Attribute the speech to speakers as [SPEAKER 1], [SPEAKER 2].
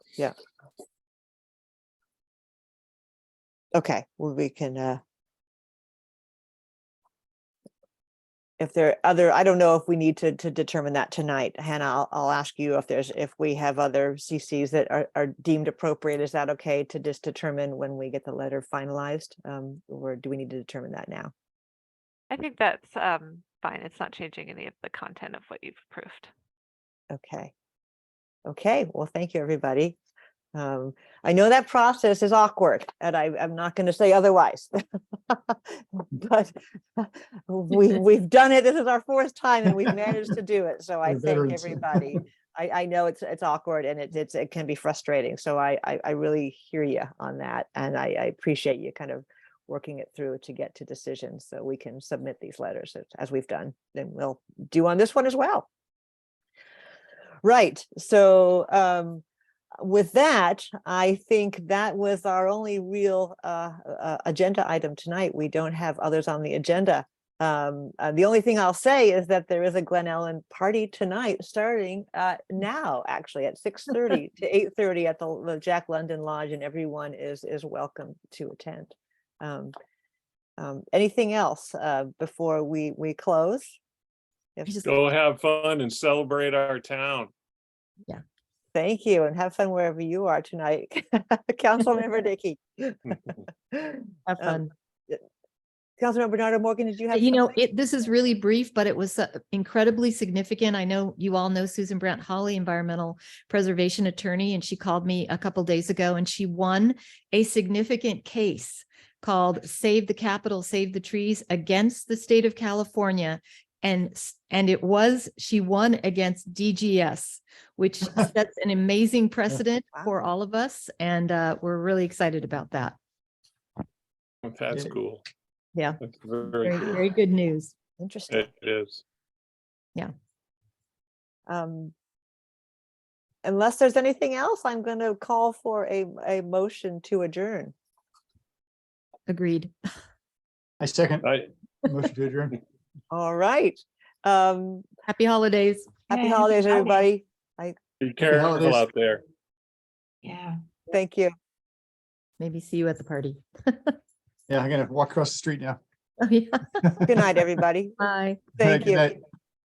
[SPEAKER 1] Yeah. Okay, well, we can, uh. If there are other, I don't know if we need to, to determine that tonight. Hannah, I'll, I'll ask you if there's, if we have other CCs that are, are deemed appropriate. Is that okay to just determine when we get the letter finalized? Um, or do we need to determine that now?
[SPEAKER 2] I think that's um, fine. It's not changing any of the content of what you've approved.
[SPEAKER 1] Okay. Okay, well, thank you, everybody. Um, I know that process is awkward and I, I'm not going to say otherwise. But we, we've done it. This is our fourth time and we've managed to do it. So I
[SPEAKER 3] We're
[SPEAKER 1] thank
[SPEAKER 3] veterans.
[SPEAKER 1] everybody. I, I know it's, it's awkward and it, it's, it can be frustrating. So I, I, I really hear you on that. And I, I appreciate you kind of working it through to get to decisions so we can submit these letters as- as we've done. Then we'll do on this one as well. Right, so um, with that, I think that was our only real uh, uh, agenda item tonight. We don't have others on the agenda. Um, uh, the only thing I'll say is that there is a Glen Ellen party tonight, starting uh, now, actually at six thirty to eight thirty at the the Jack London Lodge, and everyone is is welcome to attend. Um, um, Anything else uh, before we we close? If-
[SPEAKER 4] I just-
[SPEAKER 3] Go have fun and celebrate our town.
[SPEAKER 1] Thank you and have fun wherever you are tonight. Councilmember Dickey. Um,
[SPEAKER 4] Have fun.
[SPEAKER 1] Councilmember Bernardo Morgan, did you have?
[SPEAKER 4] You know,
[SPEAKER 1] something?
[SPEAKER 4] it, this is really brief, but it was uh, incredibly significant. I know you all know Susan Brant Holly, environmental preservation attorney, and she called me a couple days ago and she won a significant case called Save the Capitol, Save the Trees against the state of California. And, s- and it was, she won against DGS, which sets an amazing precedent
[SPEAKER 1] Wow.
[SPEAKER 4] for all of us. And uh, we're really excited about that.
[SPEAKER 3] That's
[SPEAKER 4] Yeah.
[SPEAKER 3] cool.
[SPEAKER 4] Yeah.
[SPEAKER 3] That's
[SPEAKER 4] Very,
[SPEAKER 3] Very cool.
[SPEAKER 4] very good news.
[SPEAKER 1] Interesting.
[SPEAKER 3] It is.
[SPEAKER 1] Um, Unless there's anything else, I'm going to call for a, a motion to adjourn.
[SPEAKER 4] Agreed.
[SPEAKER 5] I second.
[SPEAKER 3] I,
[SPEAKER 5] Motion to adjourn.
[SPEAKER 1] All right. Um,
[SPEAKER 4] Happy holidays.
[SPEAKER 1] Happy
[SPEAKER 2] Yay, happy
[SPEAKER 1] holidays,
[SPEAKER 2] holidays.
[SPEAKER 1] everybody.
[SPEAKER 3] be careful
[SPEAKER 5] holidays.
[SPEAKER 3] out there.
[SPEAKER 2] Yeah.
[SPEAKER 1] Thank you.
[SPEAKER 4] Maybe see you at the party.
[SPEAKER 5] Yeah, I'm gonna walk across the street now.
[SPEAKER 4] Oh, yeah.
[SPEAKER 1] Good night, everybody.
[SPEAKER 4] Bye.
[SPEAKER 1] Thank
[SPEAKER 5] Good
[SPEAKER 1] you.
[SPEAKER 5] night.